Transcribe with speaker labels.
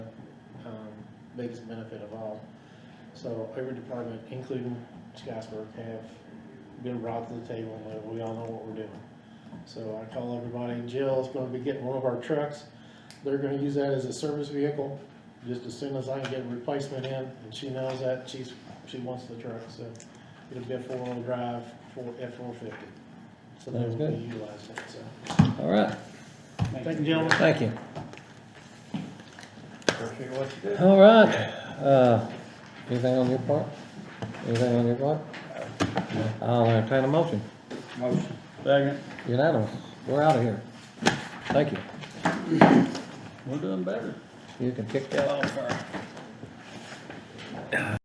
Speaker 1: um, biggest benefit of all. So every department, including Scottsburg, have been brought to the table, and we all know what we're doing. So I call everybody, Jill's gonna be getting one of our trucks, they're gonna use that as a service vehicle, just as soon as I can get a replacement in, and she knows that, she's, she wants the truck, so it'll be a four-wheel drive, four, F four fifty. So they
Speaker 2: Sounds
Speaker 1: will
Speaker 2: good.
Speaker 1: be utilizing it, so.
Speaker 2: All right,
Speaker 1: Thank you, gentlemen.
Speaker 2: thank you.
Speaker 3: Appreciate what you did.
Speaker 2: All right, uh, anything on your part? Anything on your part? I'll entertain a motion.
Speaker 3: Motion. Second.
Speaker 2: Unanimous, we're out of here. Thank you.
Speaker 3: We're doing better.
Speaker 2: You can kick that off.